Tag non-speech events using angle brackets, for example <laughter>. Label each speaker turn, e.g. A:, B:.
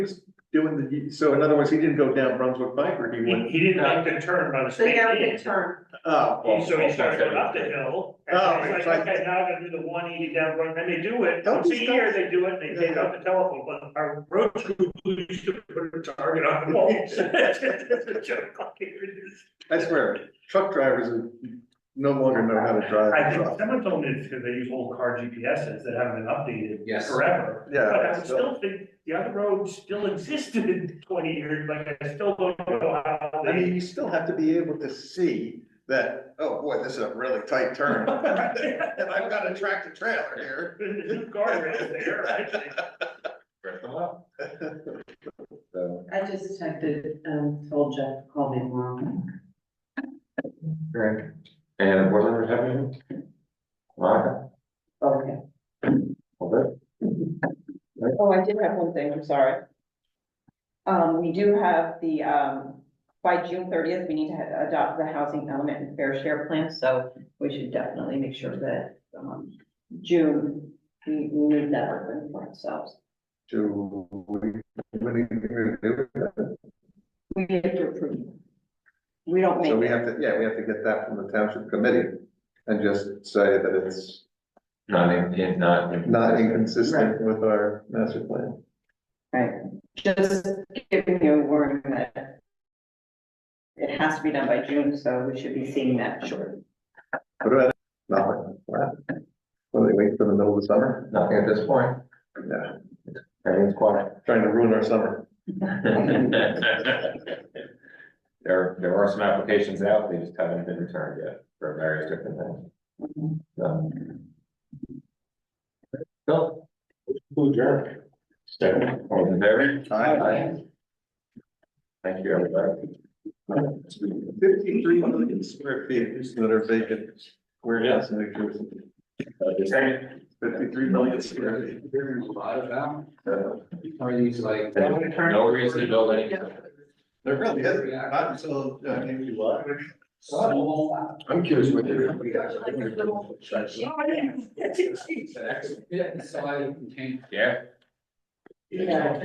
A: doing the, so in other words, he didn't go down Brunswick Pike or he
B: He, <laughs>
A: went,
B: he didn't make the turn by the
C: They
B: state
C: have a
B: aid,
C: turn.
A: oh, well,
B: so he started going up the hill. And
A: Oh,
B: then
A: it's
B: he's
A: like-
B: like, okay, now I gotta do the one eighty down, Broad- and they do it,
A: Don't
B: once a
A: these
B: year
A: guys-
B: they do it, and they take out the telephone, but our road crew used to put a target on <laughs> the walls. It's a joke.
A: I swear, truck drivers are- no longer know how to drive.
B: I
A: a
B: think
A: truck.
B: someone told me it's because they use old car GPSs that haven't been updated
D: Yes.
B: forever.
A: Yeah.
B: But I would still think the other road still existed in twenty years, like I still don't know how
A: I mean,
B: they. <laughs>
A: you still have to be able to see that, oh boy, this is a really tight
B: <laughs>
A: turn. And I've got a tractor trailer here.
B: There's a new guardrail there, right?
D: Rip them up. So,
C: I just texted, um, told Jeff, to call me tomorrow.
D: great. And what are we having? Monica,
C: Okay.
D: all good?
E: Oh, I did have one thing, I'm sorry. Um, we do have the, um, by June thirtieth, we need to ha- adopt the housing element and fair share plan, so we should definitely make sure that, um, June, we we need that open for ourselves.
A: Do we, we need to do it?
E: We have to approve. We don't make.
A: So we
E: it.
A: have to, yeah, we have to get that from the township committee and just say that it's
D: Not in, in- not. in-
A: not inconsistent with our master plan.
E: Right, just giving you a warning that it has to be done by June, so we should be seeing that shortly.
A: What about, nothing? What? What, they wait for the middle of the summer?
D: Nothing at this point,
A: Yeah,
D: everything's quiet.
A: trying to ruin our summer.
D: There, <laughs> there are some applications out, they just haven't been returned yet for various different things. Um, So. Bill? Who adjourned? Second, all in favor? Aye. Thank you, everybody.
A: Fifty-three million square feet that are vacant, warehouse in New Jersey.
D: Okay, second.
A: Fifty-three million square feet.
F: There's a lot of them,
D: Uh,
F: are these like?
D: No reason to build any.
A: There really is, not until, uh, maybe what?
F: Small. I'm curious what they're.
B: yeah.
F: Yeah, so I contain
D: Yeah.
C: Yeah.